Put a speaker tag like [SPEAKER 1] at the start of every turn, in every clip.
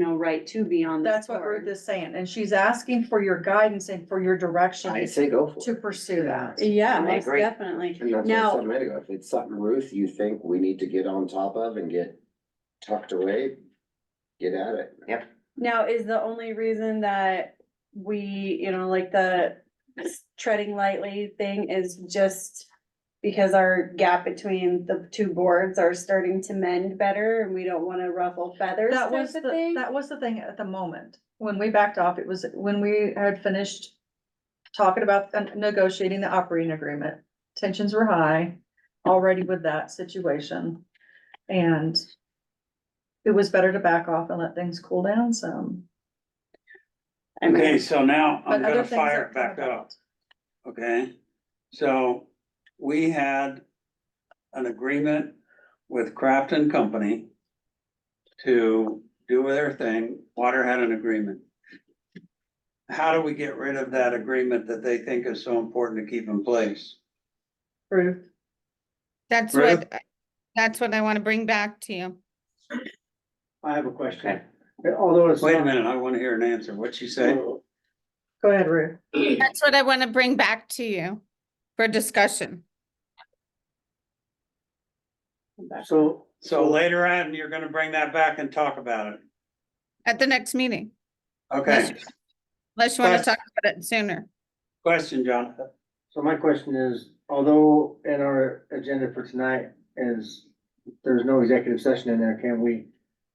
[SPEAKER 1] no right to be on this
[SPEAKER 2] That's what Ruth
[SPEAKER 1] board.
[SPEAKER 2] is saying, and she's asking for your guidance and for your
[SPEAKER 3] I
[SPEAKER 2] direction
[SPEAKER 3] say go for it.
[SPEAKER 2] to pursue that.
[SPEAKER 1] Yeah,
[SPEAKER 3] I
[SPEAKER 1] most
[SPEAKER 3] agree.
[SPEAKER 1] definitely.
[SPEAKER 3] And that's what I
[SPEAKER 1] Now-
[SPEAKER 3] said a minute ago, if it's something, Ruth, you think we need to get on top of and get tucked away, get at it. Yep.
[SPEAKER 1] Now, is the only reason that we, you know, like the treading lightly thing is just because our gap between the two boards are starting to mend better and we don't wanna ruffle feathers
[SPEAKER 2] That
[SPEAKER 1] type
[SPEAKER 2] was
[SPEAKER 1] of
[SPEAKER 2] the,
[SPEAKER 1] thing?
[SPEAKER 2] that was the thing at the moment. When we backed off, it was when we had finished talking about the- negotiating the operating agreement. Tensions were high already with that situation. And it was better to back off and let things cool down some.
[SPEAKER 1] I mean,
[SPEAKER 4] Okay, so now
[SPEAKER 2] But
[SPEAKER 4] I'm
[SPEAKER 2] other
[SPEAKER 4] gonna
[SPEAKER 2] things
[SPEAKER 4] fire
[SPEAKER 2] are
[SPEAKER 4] it back
[SPEAKER 2] coming
[SPEAKER 4] up, okay? So we had an agreement with Craft and Company to do their thing. Water had an agreement. How do we get rid of that agreement that they think is so important to keep in place?
[SPEAKER 2] Ruth,
[SPEAKER 5] That's
[SPEAKER 4] Right.
[SPEAKER 5] what, uh, that's what I want to bring back to you.
[SPEAKER 6] I have a question, although it's.
[SPEAKER 4] Wait a
[SPEAKER 6] not-
[SPEAKER 4] minute, I wanna hear an answer. What'd she say?
[SPEAKER 2] go ahead, Ruth.
[SPEAKER 5] That's what I want to bring back to you for discussion.
[SPEAKER 6] So,
[SPEAKER 4] So later on, you're gonna bring that back and talk about it,
[SPEAKER 5] At the next meeting,
[SPEAKER 4] okay?
[SPEAKER 5] unless you want to
[SPEAKER 4] Question.
[SPEAKER 5] talk about it sooner.
[SPEAKER 4] Question, Jonathan?
[SPEAKER 6] so my question is, although in our agenda for tonight is, there's no executive session in there, can we?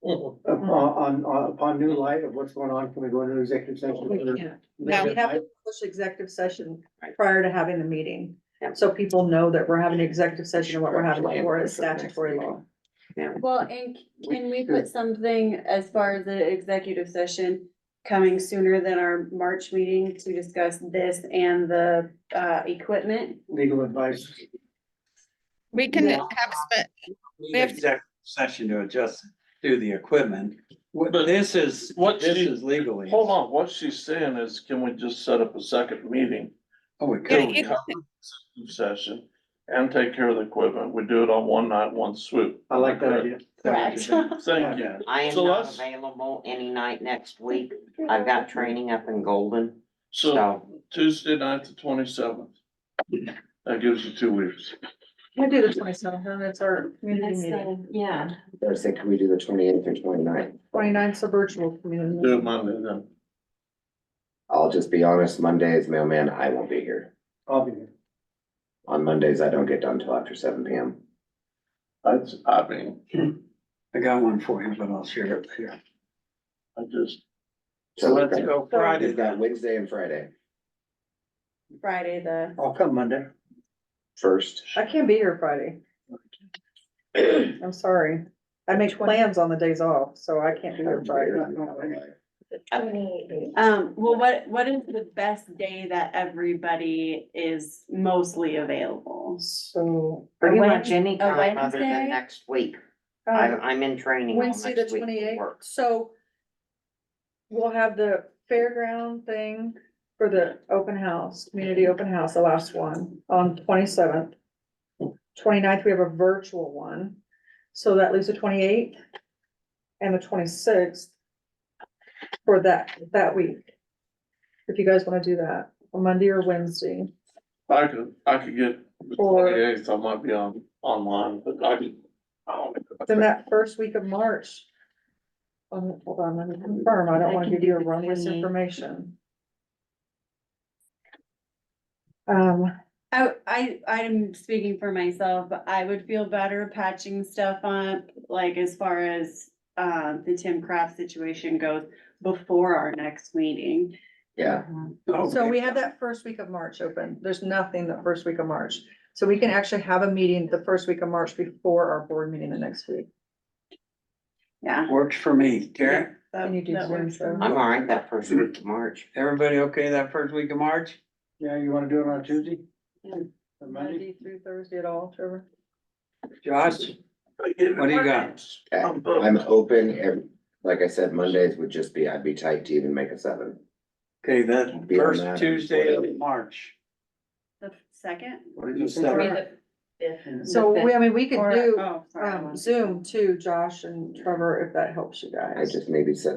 [SPEAKER 6] Upon, on- on- upon new light of what's going on, can we go into executive session?
[SPEAKER 2] We
[SPEAKER 6] Or-
[SPEAKER 2] can't.
[SPEAKER 5] No.
[SPEAKER 2] We have to push executive session
[SPEAKER 1] Right.
[SPEAKER 2] prior to having the meeting.
[SPEAKER 1] Yep.
[SPEAKER 2] So people know that we're having executive session and what we're having
[SPEAKER 3] Plan
[SPEAKER 2] for
[SPEAKER 3] for
[SPEAKER 2] is
[SPEAKER 3] the next
[SPEAKER 2] statutory law.
[SPEAKER 3] meeting.
[SPEAKER 1] Well, and c- can we put something as far as the executive session coming sooner than our March meeting to discuss this and the uh equipment?
[SPEAKER 6] Legal advice,
[SPEAKER 5] We can
[SPEAKER 1] Yeah.
[SPEAKER 5] have, spe-
[SPEAKER 4] need
[SPEAKER 5] We have to-
[SPEAKER 4] executive session to adjust to the equipment. What- This is,
[SPEAKER 7] What
[SPEAKER 4] this
[SPEAKER 7] she-
[SPEAKER 4] is legally.
[SPEAKER 7] Hold on, what she's saying is, can we just set up a second meeting?
[SPEAKER 4] Oh, we
[SPEAKER 5] Yeah,
[SPEAKER 4] could.
[SPEAKER 7] Can we
[SPEAKER 5] you-
[SPEAKER 7] have an executive Session and take care of the equipment, we do it on one night, one swoop.
[SPEAKER 6] I like that idea.
[SPEAKER 1] Correct.
[SPEAKER 7] Thank you.
[SPEAKER 8] I am
[SPEAKER 7] So
[SPEAKER 8] not
[SPEAKER 7] let's-
[SPEAKER 8] available any night next week. I've got training up in Golden,
[SPEAKER 7] So
[SPEAKER 8] so
[SPEAKER 7] Tuesday night, the twenty-seventh. That gives you two weeks.
[SPEAKER 2] We do the twenty seventh, and it's our community meeting.
[SPEAKER 1] Yeah.
[SPEAKER 3] Or say, can we do the twenty eighth or 29th? ninth?
[SPEAKER 2] Twenty ninth a virtual community.
[SPEAKER 7] Do it Monday then.
[SPEAKER 3] I'll just be honest, Mondays, mailman, I won't be here.
[SPEAKER 6] I'll be here.
[SPEAKER 3] On Mondays, I don't get done till after seven P M.
[SPEAKER 7] That's, I mean,
[SPEAKER 4] I got one for you, but I'll share it here.
[SPEAKER 7] I just,
[SPEAKER 4] So let's go Friday
[SPEAKER 3] We've got
[SPEAKER 4] then.
[SPEAKER 3] Wednesday and Friday
[SPEAKER 1] Friday, the,
[SPEAKER 6] I'll come Monday.
[SPEAKER 3] first.
[SPEAKER 2] I can't be here Friday. I'm sorry. I make plans on the days off, so I can't be here Friday.
[SPEAKER 1] um, well, what, what is the best day that everybody is mostly available?
[SPEAKER 2] So.
[SPEAKER 8] pretty much any
[SPEAKER 1] a
[SPEAKER 2] oh,
[SPEAKER 8] time
[SPEAKER 1] Wednesday?
[SPEAKER 8] other than next week. I'm,
[SPEAKER 2] Um,
[SPEAKER 8] I'm in training. all
[SPEAKER 2] Wednesday, the
[SPEAKER 8] next week for
[SPEAKER 2] twenty eighth,
[SPEAKER 8] work.
[SPEAKER 2] so. We'll have the fairground thing for the open house, community open house, the last one, on twenty seventh. 29th. we have a virtual one, so that leaves the twenty eighth. And the twenty sixth. For that, that week. If you guys wanna do that, on Monday or Wednesday,
[SPEAKER 7] I could, I could get the
[SPEAKER 2] Or-
[SPEAKER 7] twenty-eighth, I might be on, online, but I could. I don't
[SPEAKER 2] then
[SPEAKER 7] know.
[SPEAKER 2] that first week of March. Um, hold on, let me confirm, I don't wanna give you a wrong misinformation. Um,
[SPEAKER 1] I, Oh, I, I'm speaking for myself, but I would feel better patching stuff up, like as far as uh, the Tim Craft situation goes before our next meeting.
[SPEAKER 3] Yeah,
[SPEAKER 2] so
[SPEAKER 4] Okay.
[SPEAKER 2] we have that first week of March open, there's nothing the first week of March, so we can actually have a meeting the first week of March before our board meeting the next week.
[SPEAKER 1] Yeah.
[SPEAKER 4] Works for me. Derek,
[SPEAKER 1] that-
[SPEAKER 2] Can you do
[SPEAKER 1] that
[SPEAKER 2] Zoom,
[SPEAKER 1] works for
[SPEAKER 2] sir?
[SPEAKER 1] me.
[SPEAKER 8] I'm all right that first week of March.
[SPEAKER 4] everybody okay that first week of March?
[SPEAKER 6] Yeah, you wanna do it on Tuesday?
[SPEAKER 1] Yeah.
[SPEAKER 6] Or Monday?
[SPEAKER 2] through Thursday at all, Trevor?
[SPEAKER 4] Josh, what do you got?
[SPEAKER 3] okay. I'm open, every, like I said, Mondays would just be, I'd be tight to even make a seven.
[SPEAKER 4] Okay, that
[SPEAKER 3] Be on
[SPEAKER 4] first
[SPEAKER 3] that.
[SPEAKER 4] Tuesday of March.
[SPEAKER 1] The second?
[SPEAKER 4] What did
[SPEAKER 1] I
[SPEAKER 4] you
[SPEAKER 1] mean,
[SPEAKER 4] say?
[SPEAKER 1] the fifth.
[SPEAKER 2] So, we, I mean, we
[SPEAKER 1] Or-
[SPEAKER 2] could do,
[SPEAKER 1] oh, sorry, I
[SPEAKER 2] um,
[SPEAKER 1] wanted-
[SPEAKER 2] Zoom too, Josh and Trevor, if that helps you guys.
[SPEAKER 3] I just maybe set